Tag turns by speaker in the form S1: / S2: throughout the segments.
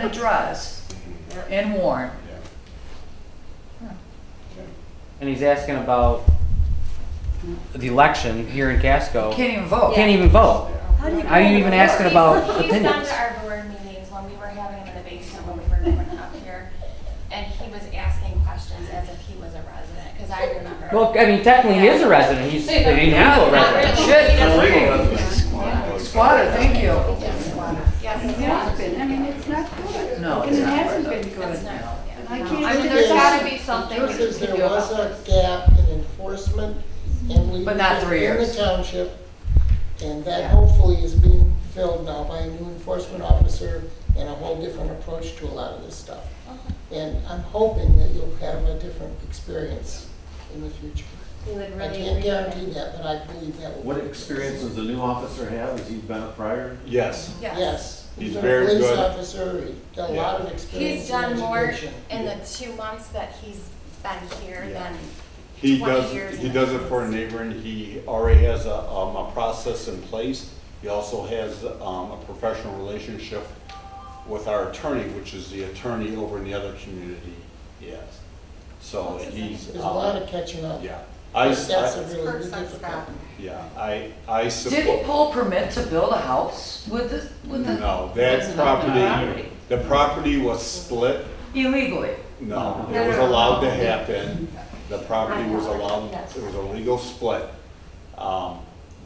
S1: the Druze
S2: Mhm.
S1: and Warren.
S2: Yeah.
S1: Yeah.
S2: Okay.
S3: And he's asking about the election here in Casco.
S1: Can't even vote.
S3: Can't even vote.
S2: Yeah.
S4: How do you?
S3: Are you even asking about
S5: He's- He's gone
S3: opinions?
S5: to our board meetings when we were having them in the basement when we were going up here, and he was asking questions as if he was a resident, because I remember.
S3: Well, I mean, technically he is a resident. He's an illegal
S5: Not really.
S3: resident.
S1: Shit.
S5: He doesn't-
S2: Illegal residents.
S1: Squatter, thank you.
S5: Yes,
S4: It
S5: it's
S4: has
S5: not.
S4: been, I mean, it's not good.
S1: No,
S4: And
S1: it's
S4: it
S1: not
S4: hasn't been
S5: It's
S4: good.
S5: not, yeah.
S4: And I
S6: I
S4: can't
S6: mean,
S4: do
S6: there's gotta
S4: this.
S6: be something we
S7: Truth
S6: can
S7: is,
S6: do
S7: there
S6: about
S7: was a
S6: this.
S7: gap in enforcement and legal
S1: But not three
S7: in the
S1: years.
S7: township. And
S1: Yeah.
S7: that hopefully is being filled now by a new enforcement officer and a whole different approach to a lot of this stuff. And I'm hoping that you'll have a different experience in the future.
S6: We would
S7: I
S6: really
S7: can't
S6: agree with
S7: guarantee that, but I believe that will.
S8: What experience does the new officer have? Has he been a prior?
S2: Yes,
S7: Yes.
S2: He's
S7: been a
S2: very
S7: Police
S2: good.
S7: officer, he's got a lot of
S5: He's
S7: experience in
S5: done more
S7: education.
S5: in the two months that he's been here
S2: Yeah.
S5: than
S2: he
S5: 20
S2: does,
S5: years
S2: he
S5: in
S2: does
S5: the
S2: it for a
S5: business.
S2: neighbor and he already has a, um, a process in place. He also has, um, a professional relationship with our attorney, which is the attorney over in the other community, yes. So
S5: What's his name?
S2: he's,
S7: There's a lot
S2: um,
S7: of catching up.
S2: yeah, I,
S7: That's a
S2: I,
S7: really
S5: Kirk's
S7: good
S5: on
S7: difficulty.
S5: Scott.
S2: yeah, I, I
S1: Did he
S2: support,
S1: pull permit to build a house with the, with the,
S2: no, that property, the property was split
S1: illegally?
S2: No, it was allowed to happen. The property was allowed, it was a legal split. Um,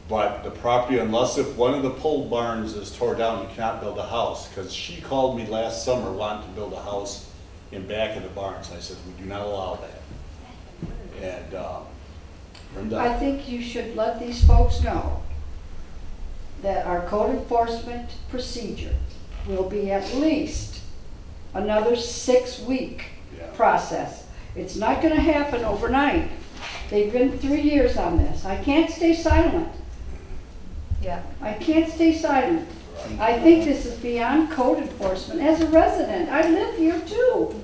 S2: But the property, unless if one of the pole barns is tore down, you cannot build a house. Because she called me last summer wanting to build a house in back of the barns. I said, we do not allow that. And um,
S4: I
S2: Brenda,
S4: think you should let these folks know that our code enforcement procedure will be at least another six-week
S2: Yeah.
S4: process. It's not gonna happen overnight. They've been three years on this. I can't stay silent.
S6: Yeah.
S4: I can't stay silent. I think this is beyond code enforcement. As a resident, I live here too.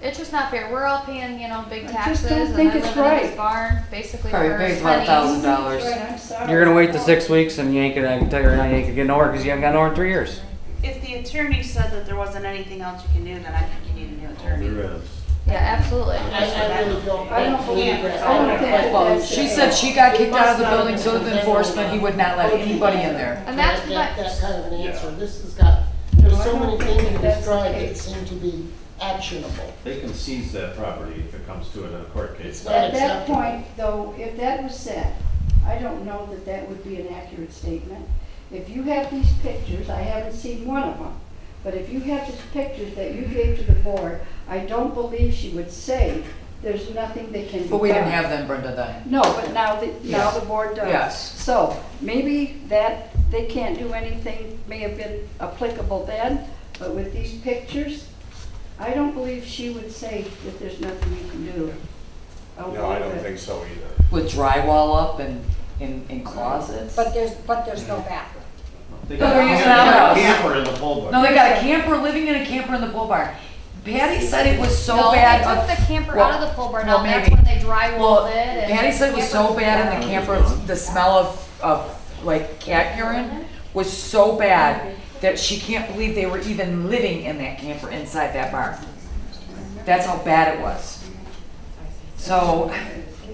S6: It's just not fair. We're all paying, you know, big
S4: I just
S6: taxes
S4: don't
S6: and I
S4: think
S6: live in
S4: it's
S6: this
S4: right.
S6: barn, basically
S1: All right,
S6: we're
S1: pays about a
S6: spending-
S1: thousand dollars.
S4: Right, I'm sorry.
S3: You're gonna wait the six weeks and you ain't gonna, I can tell you right now, you ain't gonna get nowhere because you haven't got nowhere in three years.
S9: If the attorney said that there wasn't anything else you can do, then I think you need a new attorney.
S8: Oh, There is.
S6: Yeah, absolutely.
S7: I, I really don't.
S4: I don't
S7: believe
S9: believe
S7: that.
S9: I don't
S4: think that
S7: Well,
S4: that's-
S1: She said she got kicked out of the building, so with enforcement, he would not let anybody in there.
S6: And that's
S7: That- that-
S6: what-
S7: That kind of an answer, this has got, there's so many things in
S4: That's
S7: this
S4: the
S7: drive that
S4: case.
S7: seem to be actionable.
S8: They can seize that property if it comes to it in a court case.
S7: not
S4: At that
S7: acceptable.
S4: point, though, if that was said, I don't know that that would be an accurate statement. If you have these pictures, I haven't seen one of them, but if you have these pictures that you gave to the board, I don't believe she would say there's nothing that can be done.
S1: But we didn't have them, Brenda, then.
S4: No, but now, the- now the board does.
S1: Yes.
S4: So maybe that, they can't do anything, may have been applicable then, but with these pictures, I don't believe she would say that there's nothing you can do.
S2: no, I don't
S4: believe it.
S2: think so either.
S1: With drywall up and, and, and closets.
S10: But there's, but there's no back.
S8: They
S1: No,
S8: got
S1: Oh, they're
S8: a
S1: using
S8: camper-
S1: outhouse.
S8: Camper in the pole barn.
S1: No, they got a camper, living in a camper in the bull barn. Patty said it was so
S6: Oh, No,
S1: bad.
S6: They took
S1: of-
S6: the camper
S1: well,
S6: out of the pole barn,
S1: well,
S6: now that's
S1: maybe.
S6: when they
S1: Well,
S6: drywalled it and.
S1: Patty said it was so
S6: camper-
S1: bad in the camper, the smell of, of like cat urine was so bad that she can't believe they were even living in that camper inside that barn. That's how bad it was. So,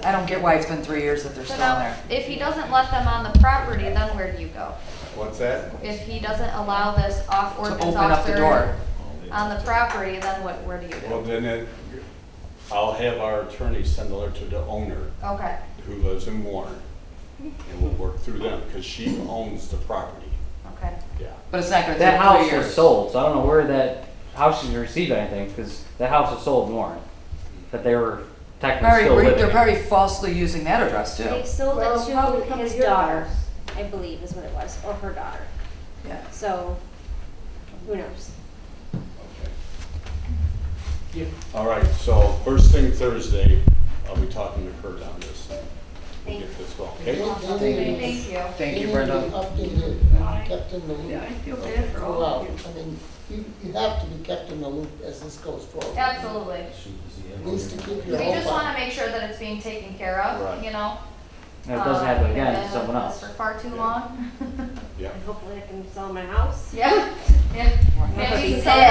S1: I don't get why it's been three years that they're
S6: So
S1: still in
S6: now,
S1: there.
S6: if he doesn't let them on the property, then where do you go?
S2: What's that?
S6: If he doesn't allow this off
S1: To
S6: ordinance
S1: open up the door.
S6: officer on the property, then what, where do you
S2: Well,
S6: do?
S2: then it, I'll have our attorney send a letter to the owner
S6: Okay,
S2: who lives in Warren, and we'll work through them, because she owns the property.
S6: okay.
S2: Yeah.
S1: But it's not gonna
S3: That
S1: take three
S3: house was
S1: years.
S3: sold, so I don't know where that house should receive anything because that house was sold in Warren. That they were technically
S1: Probably,
S3: still living.
S1: they're
S3: in.
S1: probably falsely using that address
S4: They
S1: too.
S4: sold
S10: Well, probably because your I believe is what it was, or her daughter.
S1: Yeah.
S10: So, who knows?
S2: All right, so first thing Thursday, I'll be talking to Kurt on this. We'll get this going,
S7: They-
S2: okay?
S7: they need-
S6: Thank you.
S1: Thank
S7: they
S1: you,
S7: need to be
S1: Brenda.
S7: Updated, and kept in the
S4: Yeah, I
S7: loop
S4: feel bad for all of
S7: throughout.
S4: you.
S7: I mean, you, you have to be kept in the loop as this goes forward.
S6: Absolutely.
S7: At least to keep
S6: We
S7: your whole.
S6: just wanna make sure that it's being taken care of,
S2: Right.
S6: you know?
S3: And if it doesn't
S6: Um,
S3: happen again,
S6: and
S3: it's someone
S6: that's
S3: else.
S6: For far too
S2: Yeah.
S6: long.
S2: Yeah,
S10: And hopefully I can sell my house.
S6: Yeah. And maybe some of